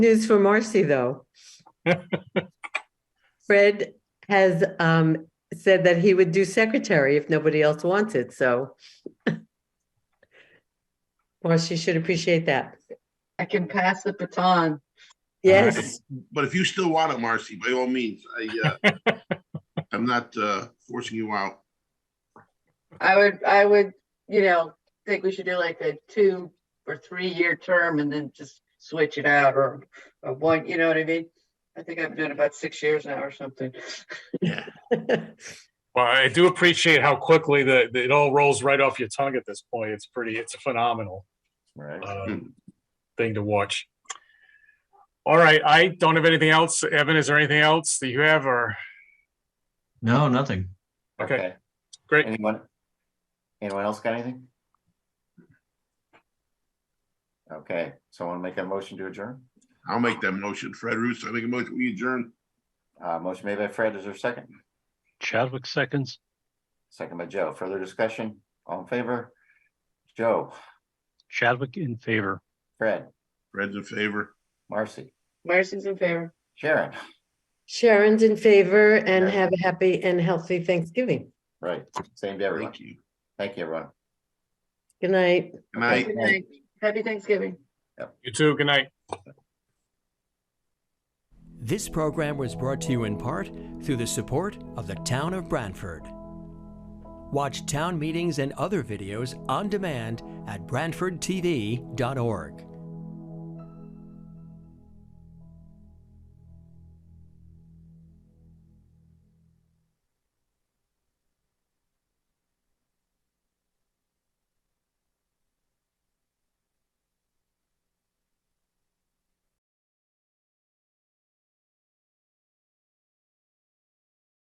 News for Marcy, though. Fred has um, said that he would do secretary if nobody else wants it, so. Marcy should appreciate that. I can pass the baton. Yes, But if you still want it, Marcy, by all means, I, uh, I'm not, uh, forcing you out. I would, I would, you know, think we should do like a two or three-year term and then just switch it out or, or one, you know what I mean? I think I've done about six years now or something. Yeah. Well, I do appreciate how quickly the, the- it all rolls right off your tongue at this point. It's pretty, it's a phenomenal Right. uh, thing to watch. All right, I don't have anything else. Evan, is there anything else that you have or? No, nothing. Okay. Great. Anyone? Anyone else got anything? Okay, someone make a motion to adjourn? I'll make that motion. Fred Russo, I make a motion, we adjourn. Uh, motion made by Fred, is there a second? Chadwick seconds. Second by Joe. Further discussion? All in favor? Joe, Chadwick in favor. Fred, Fred's in favor. Marcy, Marcy's in favor. Sharon, Sharon's in favor and Yeah. have a happy and healthy Thanksgiving. right, same to everyone. Thank you. Thank you, everyone. Good night. Good night. Good night. Happy Thanksgiving. You too. Good night. This program was brought to you in part through the support of the Town of Brantford. Watch town meetings and other videos on demand at BrantfordTV.org.